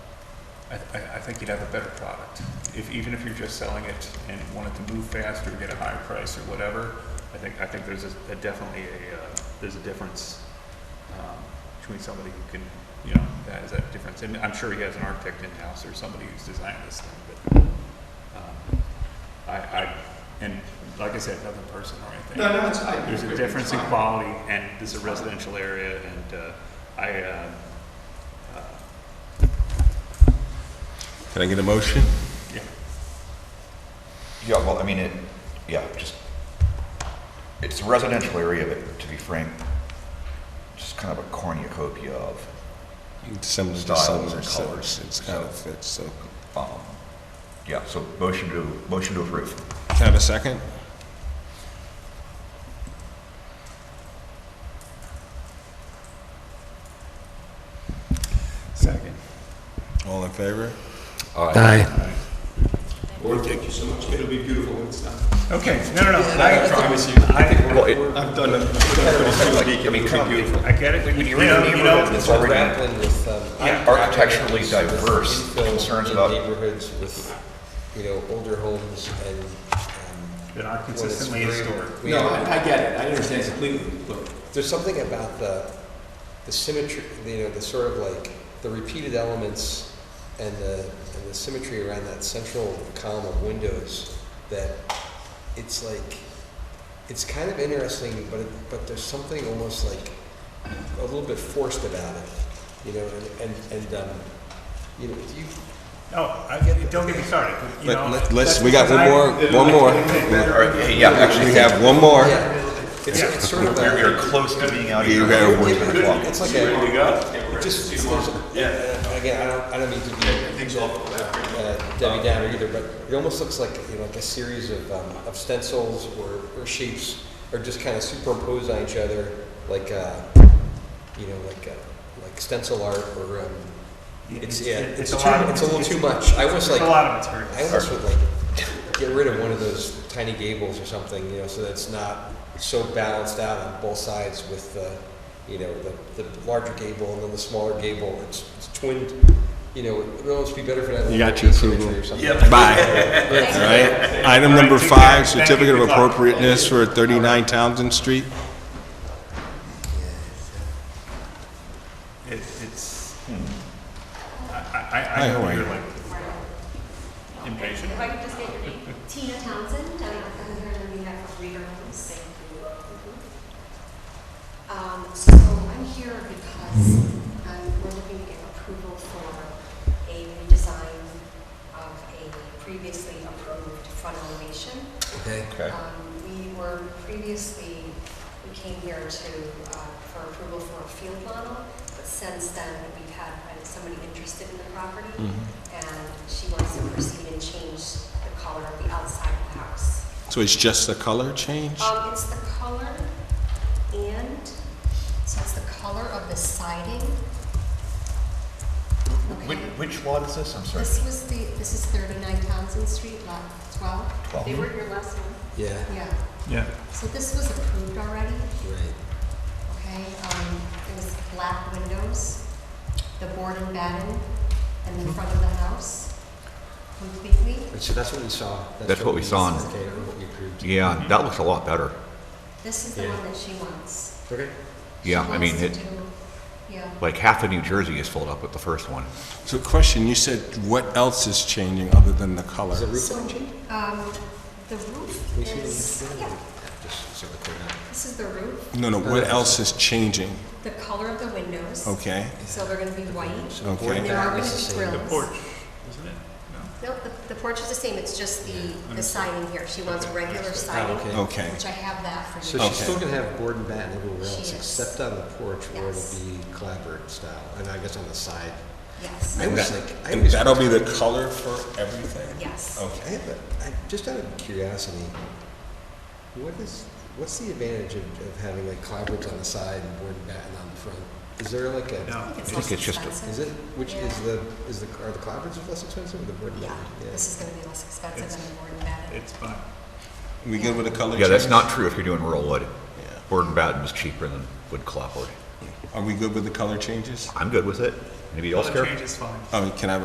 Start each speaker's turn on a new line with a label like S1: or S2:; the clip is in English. S1: I, I, I think you'd have a better product. If, even if you're just selling it and wanted to move fast or get a higher price or whatever, I think, I think there's a, a definitely a, uh, there's a difference, um, between somebody who can, you know, that is that difference. And I'm sure he has an architect in-house or somebody who's designed this thing, but, um, I, I, and like I said, nothing personal or anything.
S2: No, no, it's, I.
S1: There's a
S2: it's
S1: difference in
S2: fine.
S1: quality, and this is a residential area, and uh, I, uh, uh,
S3: Can I get a motion?
S1: yeah,
S4: Yeah, well, I mean, it, yeah, just, it's a residential area, but to be frank, just kind of a cornucopia of,
S3: Some of the
S4: Styles
S3: some
S4: or colors.
S3: It's kind of fits, so.
S4: um, yeah, so motion to, motion to approve.
S3: Can I have a second?
S1: second.
S3: All in favor?
S5: Aye.
S2: Lord, thank you so much. It'll be beautiful when it's done.
S1: Okay, no, no, no,
S2: I
S1: I,
S2: promise you. I think
S4: Well, it-
S2: we're, I've done, I've done pretty
S4: I
S2: It'll
S4: mean,
S2: be
S4: kind of-
S2: beautiful.
S1: I get it, you know, you know,
S4: It's already
S6: grappling with, um,
S1: Yeah.
S4: Architecturally
S6: with
S4: diverse
S6: infill
S4: concerns
S6: in
S4: about-
S6: Neighborhoods with, you know, older homes and. um,
S1: that are
S6: when it's
S1: consistently
S6: very-
S1: historic.
S6: we-
S2: No, I, I get it. I understand completely, but
S6: There's something about the, the symmetry, you know, the sort of like, the repeated elements and the, and the symmetry around that central column of windows that it's like, it's kind of interesting, but, it- but there's something almost like a little bit forced about it, you know, and, and, and, um, you know, if you,
S1: Oh, I get it, don't get me started, but, you
S3: Let-
S1: know.
S3: let- Let's, we got one more, one more.
S4: All right, hey, yeah, actually,
S3: We have one more.
S6: Oh, yeah, it's,
S1: Yeah.
S6: it's sort of
S4: You're,
S6: a.
S4: you're close to being out of
S3: You
S4: here.
S3: got
S4: before
S3: one.
S4: ten o'clock.
S6: It's like a,
S2: we go.
S6: it just, there's a- and again, I don't, I don't mean to be
S2: Things all.
S6: uh, Debbie Downer either, but it almost looks like, you know, like a series of, um, of stencils or, or shapes are just kind of superimposed on each other, like, uh, you know, like, uh, like stencil art or, um, it's, yeah, it's
S1: a
S6: too,
S1: lot of-
S6: it's a little too much. I was
S1: It's
S6: like,
S1: a
S6: I
S1: lot of material.
S6: almost would like get rid of one of those tiny gables or something, you know, so that's not so balanced out on both sides with the, you know, the, the larger gable and then the smaller gable. It's, it's twinned, you know, it would almost be better for that.
S3: You got your approval.
S6: symmetry or something.
S3: Bye. All right. Item number
S1: Thank you. Thank
S3: five,
S1: you.
S3: certificate of
S1: Good luck.
S3: appropriateness for 39 Townsend Street.
S1: It- It's, hmm. I, I,
S3: Hi,
S1: I
S3: how
S1: know
S3: are
S1: you're
S3: you?
S1: like impatient.
S7: If I could just get your name, Tina Townsend, I'm I'm here on behalf of Reader Homes. Um, so I'm here because, um, we're looking to get approval for a redesign of a previously approved front elevation.
S6: Okay.
S4: Okay,
S7: Um, we were previously, we came here to, uh, for approval for a field model, but since then, we've had uh, somebody interested in the property,
S4: Mm-hmm.
S7: and she wants to proceed and change the color of the outside of the house.
S3: So it's just the color change?
S7: Um, it's the color and, so it's the color of the siding.
S4: which,
S7: Okay.
S4: which lot is this? I'm sorry.
S7: This was the, this is 39 Townsend Street, lot 12.
S4: Twelve.
S7: They were your last one.
S6: Yeah,
S7: Yeah,
S1: Yeah.
S7: so this was approved already.
S6: right.
S7: Okay, um, it was black windows, the board and batten, and the front of the house completely.
S6: So that's what we saw.
S4: That's what we saw on-
S6: Okay, or what we approved.
S4: Yeah, that looks a lot better.
S7: This is the
S6: Yeah.
S7: one that she wants.
S6: Okay.
S7: She
S4: Yeah, I mean,
S7: wants to
S4: it,
S7: do- Yeah,
S4: like half of New Jersey is filled up with the first one.
S3: So question, you said what else is changing other than the color?
S6: Is the roof
S7: So-
S6: line changed?
S7: um, the roof
S6: Can we see the
S7: is,
S6: roof line?
S7: yeah,
S6: Just so we're clear now.
S7: this is the roof,
S3: No, no, what else is changing?
S7: the color of the windows.
S3: Okay,
S7: So they're gonna be white.
S6: So the board
S3: Okay.
S7: There are
S6: back
S7: gonna
S6: is the
S7: be
S6: same.
S7: grills.
S1: Porch, isn't it?
S7: No, the, the porch is the same, it's just the, the siding here. She wants regular siding,
S6: okay.
S3: okay.
S7: which I have that for you.
S6: So she's
S3: Okay.
S6: still gonna have board and bat everywhere
S7: She
S6: else,
S7: is.
S6: except on the porch where it'll
S7: Yes.
S6: be clapboard style, and I guess on the side.
S7: Yes,
S6: I
S3: And
S6: was
S3: that-
S6: like- I
S3: and
S6: was-
S3: that'll be the color for everything?
S7: yes.
S6: I
S3: Okay.
S6: have a, I, just out of curiosity, what is, what's the advantage of, of having like clapboards on the side and board and batten on the front? Is there like a?
S1: No.
S7: I
S4: I think it's just a-
S6: Is it, which is
S7: Yeah.
S6: the, is the, are the clapboards less expensive or the board? and
S7: Yeah,
S6: batten?
S7: this is gonna be less expensive than the board and batten.
S1: It's fine.
S3: We good with the color change?
S4: Yeah, that's not true if you're doing rural wood.
S3: Yeah.
S4: Board and batten is cheaper than wood clapboard.
S3: Are we good with the color changes?
S4: I'm good with it. Anybody else care?
S1: Change is fine.
S3: Oh, can I have a